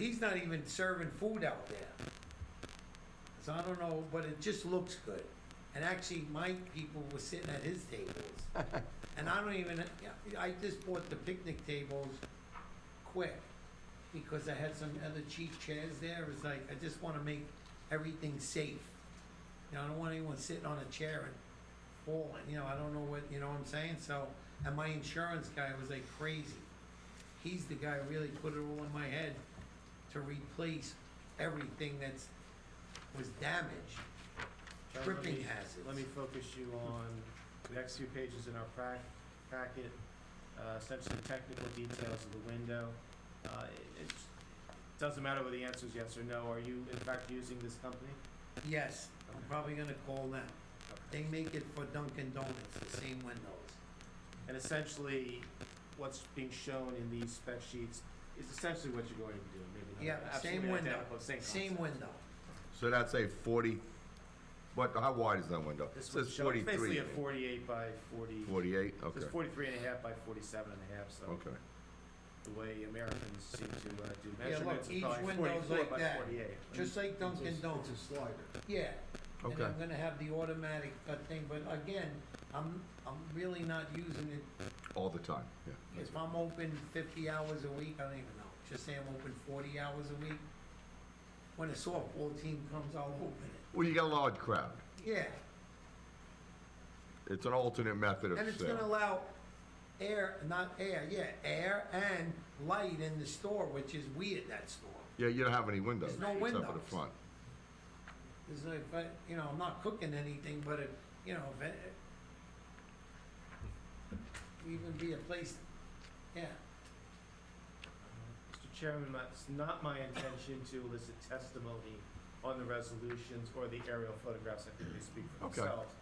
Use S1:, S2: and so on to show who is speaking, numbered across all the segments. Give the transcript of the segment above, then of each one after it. S1: He's not even serving food out there. So I don't know, but it just looks good. And actually, my people were sitting at his tables. And I don't even, yeah, I just bought the picnic tables quick because I had some other cheap chairs there. It's like, I just want to make everything safe. You know, I don't want anyone sitting on a chair and falling, you know, I don't know what, you know what I'm saying? So, and my insurance guy was like crazy. He's the guy who really put it all in my head to replace everything that's, was damaged.
S2: Charlie, let
S1: Tripping
S2: me-
S1: hazards.
S2: Let me focus you on the next few pages in our prac- packet, uh, essentially technical details of the window. Uh, it- It doesn't matter whether the answer is yes or no, are you in fact using this company?
S1: Yes, I'm probably gonna call them. They make it for Dunkin' Donuts, the same windows.
S2: And essentially, what's being shown in these spec sheets is essentially what you're going to be doing, maybe
S1: Yeah,
S2: not
S1: same
S2: absolutely
S1: window,
S2: identical, same concept.
S1: same window.
S3: So that's a forty, what, how wide is that window? It
S2: This one's
S3: says
S2: shown, it's basically
S3: forty-three.
S2: a forty-eight by forty,
S3: Forty-eight, okay,
S2: it's forty-three and a half by forty-seven and a half, so.
S3: okay.
S2: the way Americans seem to uh, do
S1: Yeah, look,
S2: measurements,
S1: each
S2: it's probably
S1: window's
S2: forty-four
S1: like
S2: by
S1: that.
S2: forty-eight.
S1: Just like Dunkin' Donuts.
S4: It's a slider.
S1: Yeah. And
S3: Okay.
S1: I'm gonna have the automatic uh, thing, but again, I'm, I'm really not using it.
S3: All the time, yeah.
S1: If I'm open fifty hours a week, I don't even know, just say I'm open forty hours a week. When a softball team comes, I'll open it.
S3: Well, you got a large crowd.
S1: Yeah,
S3: It's an alternate method of
S1: and it's gonna
S3: sale.
S1: allow air, not air, yeah, air and light in the store, which is weird, that store.
S3: Yeah, you don't have any windows,
S1: There's no
S3: except for the
S1: windows.
S3: front.
S1: It's like, but, you know, I'm not cooking anything, but if, you know, if it, even be a place, yeah,
S2: Mr. Chairman, my- it's not my intention to elicit testimony on the resolutions or the aerial photographs, I think they speak for
S3: Okay.
S2: themselves.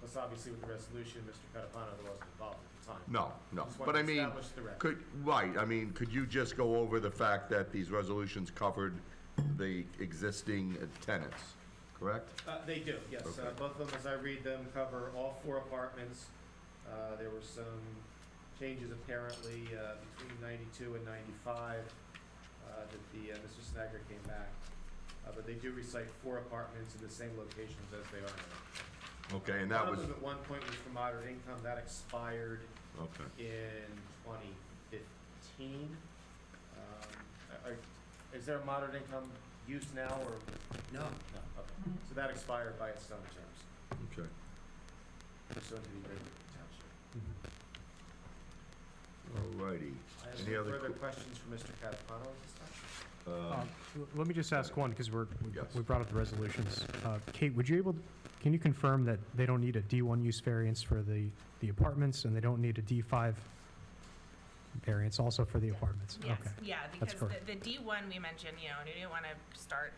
S2: Plus, obviously, with the resolution, Mr. Catapano wasn't involved at the time.
S3: No, no,
S2: Just
S3: but
S2: wanted
S3: I
S2: to
S3: mean,
S2: establish the record.
S3: could, right, I mean, could you just go over the fact that these resolutions covered the existing tenants, correct?
S2: Uh, they do, yes. Uh,
S3: Okay.
S2: both of them, as I read them, cover all four apartments. Uh, there were some changes apparently, uh, between ninety-two and ninety-five, uh, that the, uh, Mr. Snagger came back. Uh, but they do recite four apartments in the same locations as they are now.
S3: Okay, and that
S2: One
S3: was,
S2: of them at one point was for moderate income, that expired
S3: okay.
S2: in twenty fifteen. Um, are- are, is there a moderate income use now, or?
S1: no.
S2: No, okay. So that expired by its own terms.
S3: Okay.
S2: pursuant to the agreement with the township.
S3: All righty.
S2: I have
S3: Any
S2: no
S3: other
S2: further
S3: que-
S2: questions for Mr. Catapano at this time?
S3: Um,
S5: L- Let me just ask one, because we're, we-
S3: Yes.
S5: we brought up the resolutions. Uh, Kate, would you able, can you confirm that they don't need a D1 use variance for the, the apartments, and they don't need a D5 variance also for the apartments?
S6: Yes,
S5: Okay.
S6: yeah,
S5: That's
S6: because
S5: correct.
S6: the, the D one we mentioned, you know, and we didn't wanna start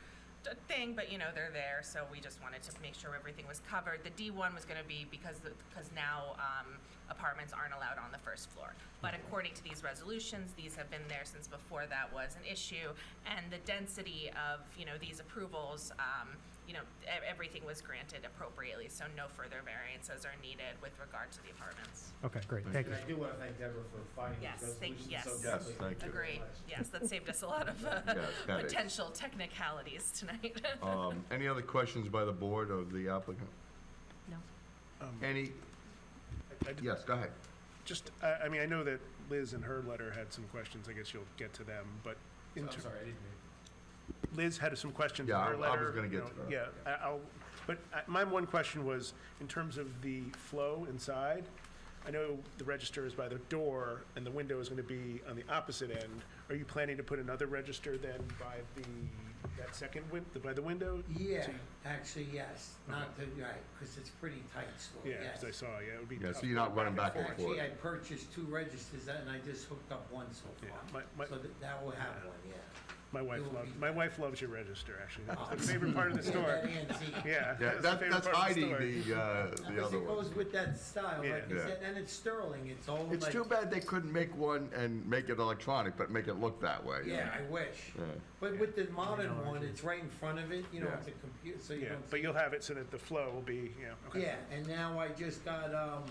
S6: a thing, but you know, they're there, so we just wanted to make sure everything was covered. The D one was gonna be because, the- because now, um, apartments aren't allowed on the first floor. But
S5: Mm-hmm.
S6: according to these resolutions, these have been there since before that was an issue, and the density of, you know, these approvals, um, you know, e- everything was granted appropriately, so no further variances are needed with regard to the apartments.
S5: Okay, great, thank you.
S2: And I do want to thank Deborah for finding
S6: Yes,
S2: these
S6: thank-
S2: resolutions so
S3: yes.
S2: quickly.
S3: Yes, thank you.
S6: Agreed, yes, that saved us a lot of, uh,
S3: Yes, that is.
S6: potential technicalities tonight.
S3: Um, Any other questions by the board of the applicant?
S6: No.
S1: Um,
S3: Any,
S7: I d-
S3: yes, go ahead.
S7: Just, I, I mean, I know that Liz in her letter had some questions, I guess you'll get to them, but
S2: So
S7: in
S2: I'm
S7: ter-
S2: sorry, I didn't mean.
S7: Liz had some questions in
S3: Yeah, I- I
S7: her
S3: was
S7: letter.
S3: gonna
S7: you
S3: get
S7: know,
S3: to that.
S7: Yeah, I- I'll, but I- my one question was, in terms of the flow inside, I know the register is by the door and the window is gonna be on the opposite end. Are you planning to put another register then by the, that second win, by the window?
S1: Yeah,
S7: So you-
S1: actually, yes, not the, right, because it's pretty tight store,
S7: Yeah,
S1: yes.
S7: as I saw, yeah, it would be
S3: Yeah,
S7: tough.
S3: so you're not running back and forth.
S1: Actually, I purchased two registers and I just hooked up one so
S7: Yeah,
S1: far.
S7: my- my-
S1: So that, that will have one, yeah.
S7: My wife
S1: It would
S7: loves,
S1: be-
S7: my wife loves your register, actually. That's the favorite part of the
S1: Yeah,
S7: store.
S1: that antique.
S7: Yeah.
S3: Yeah,
S7: the
S3: that-
S7: favorite
S3: that's
S7: part of
S3: hiding
S7: story.
S3: the, uh, the
S1: Because
S3: other
S1: it
S3: one.
S1: goes with that style,
S7: Yeah.
S1: like you
S3: Yeah.
S1: said, and it's sterling, it's all like.
S3: It's too bad they couldn't make one and make it electronic, but make it look that way. you
S1: Yeah,
S3: know?
S1: I wish.
S3: Yeah.
S1: But with the modern one, it's right in front of it, you know,
S3: Yeah.
S1: it's a computer, so you
S7: Yeah,
S1: don't.
S7: but you'll have it so that the flow will be, yeah, okay.
S1: Yeah, and now I just got, um,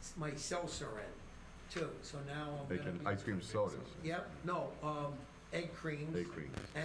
S1: s- my seltzer in too, so now I'm
S3: They
S1: gonna
S3: can,
S1: be.
S3: ice cream sodas.
S1: Yep, no, um, egg creams.
S3: Egg creams.